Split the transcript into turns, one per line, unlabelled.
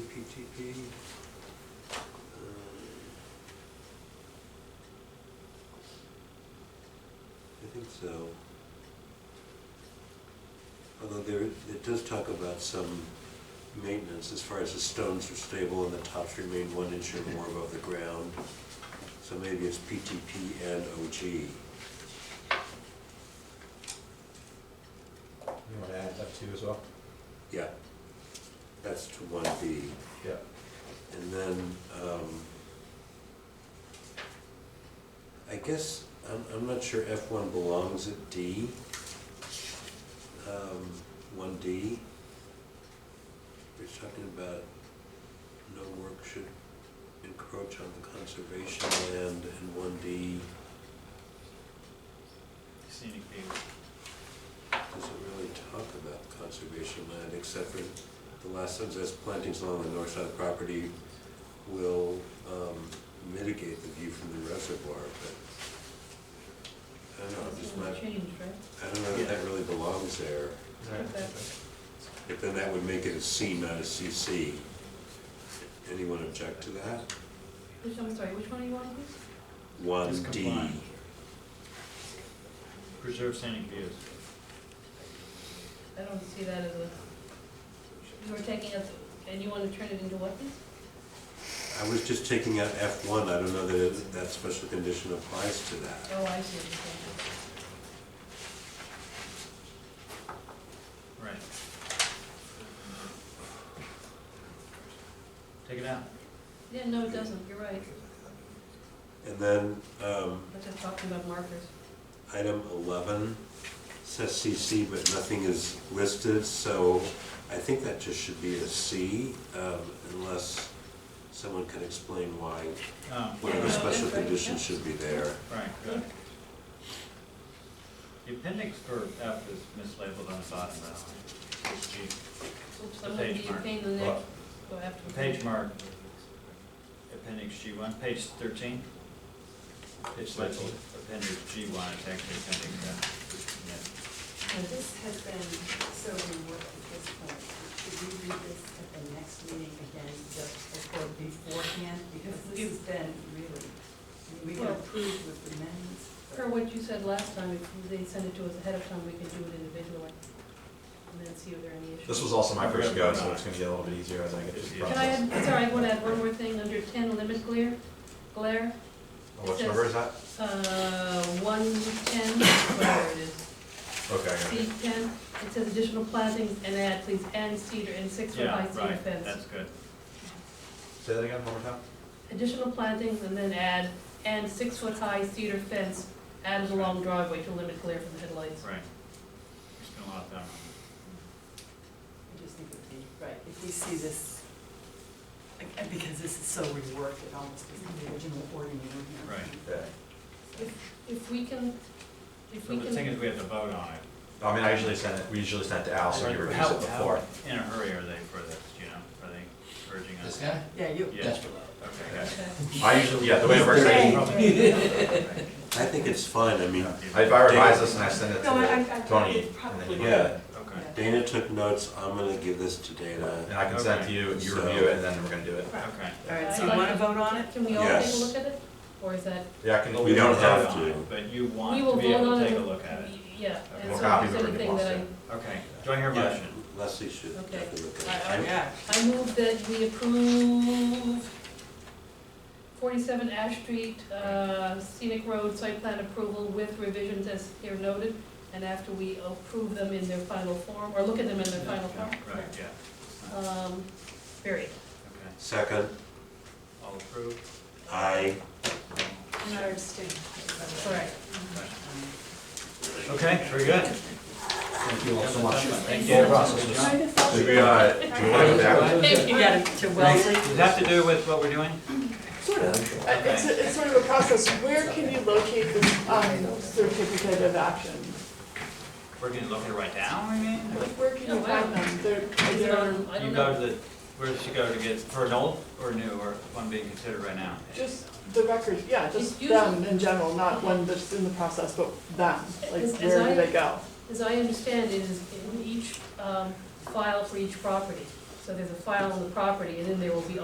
CPP.
Uh, I think so. Although there, it does talk about some maintenance as far as the stones are stable and the tops remain one inch or more above the ground. So maybe it's PTP and OG.
You wanna add that too as well?
Yeah. That's to one B.
Yeah.
And then, um, I guess, I'm, I'm not sure F one belongs at D. Um, one D. They're talking about no work should encroach on the conservation land and one D,
Scenic view.
doesn't really talk about conservation land except for the last sentence, says plantings along the north side of the property will um, mitigate the view from the reservoir, but I don't know,
It's
this
gonna
might,
change, right?
I don't know if that really belongs there. But then that would make it a C, not a CC. Anyone object to that?
Which, I'm sorry, which one do you want to do?
One
It's
D.
compliant. Preserve scenic views.
I don't see that as a, you were taking us, and you want to turn it into what?
I was just taking out F one, I don't know that it- that special condition applies to that.
Oh, I see. what you're saying.
Right. Take it out.
Yeah, no, it doesn't, you're right.
And then, um,
That's just talking about markers.
Item 11 says CC, but nothing is listed, so I think that just should be a C, um, unless someone can explain why
Um,
one of the
Yeah,
special
that's right,
conditions
yeah.
should be there.
Right, good. The appendix for F is mislabeled on the bottom, that's, it's G.
Oops, I'm gonna
page
be
mark.
paying the next, go after.
The page mark, appendix G one, page thirteen. It's labeled appendix G one, it's actually appendix F.
And this has been so reworked at this point. Should we read this at the next meeting again, just before, beforehand? Because this has been really, I mean, we can
Well-
approve with amendments.
Per what you said last time, if they send it to us ahead of time, we can do it individually. And then see if there are any issues.
This was also my first go, so it's gonna get a little bit easier as I get through the
Can I
process.
add, sorry, I want to add one more thing, under ten, limit glare, glare,
Which number is that?
uh, one ten, whatever it is.
Okay, I got
C
it.
ten, it says additional plantings and add, please, and cedar and six foot high
Yeah,
cedar
right,
fence.
that's good.
Say that again, one more time?
Additional plantings and then add, and six foot high cedar fence added along driveway to limit glare from the headlights.
Right. We spent a lot of time on
I just think it would be, right, if we see this, again, because this is so reworked, it almost is the original ordinance. you know?
Right.
Yeah.
If we can, if we
it. So the thing
can,
is, we have to vote on it.
I mean, I usually send it, we usually send it to Al, so he
How-
reviews it
how-
before.
In a hurry are they for this, you know, are they urging us?
This guy?
Yeah, you,
Yeah.
Desperate.
Okay, guys.
Okay.
I usually, yeah, the way it works, I,
I think it's fine, I mean,
if I revise this and I send it
No, I- I- I-
to Tony,
it
and then you
probably-
get
yeah,
it.
Okay,
Dana took notes, I'm gonna give this to
And
Dana.
I can send it to you, you review it, and then we're gonna do it.
okay.
all right, so you want to vote on it?
can we all take a
Yes.
look at it? Or is that,
Yeah, I can.
We don't have
Vote on
to.
it, But you
we
want
will
to be
vote
able
on
to
it?
take a look at it.
Yeah, and
We'll
so
copy
if
whatever
there's
he
anything
wants
that
to.
I
Okay, do I hear a
Yeah,
motion?
Leslie should
Okay.
definitely look
I-
at it.
Yeah.
I move that we approve forty-seven Ash Street uh, scenic road site plan approval with revisions as here noted, and after we approve them in their final form, or look at them in their final form.
Yeah, Right, yeah. Okay,
Um, period.
Second,
all approved?
I,
And I abstain.
Correct.
Okay, very good. Thank you all so much. Thank you.
The whole process was-
Does
Do we, uh, do we wanna go back?
You got it to Wellesley?
that have to do with what we're doing?
Sort of. Uh, It's, a- it's sort of a process. Where can you locate this um, certificate of action?
We're gonna look it right now, I mean?
Like, Where can you find them? They're,
Is it
they're
on, I
You
don't
go
know,
to the, where does she go to get, for an old or new, or one being considered right now?
just the records, yeah, just
It's usually-
them in general, not one that's in the process, but them. Like,
As- as
where
I-
do they go?
as I understand, it is in each um, file for each property. So there's a file on the property, and then there will be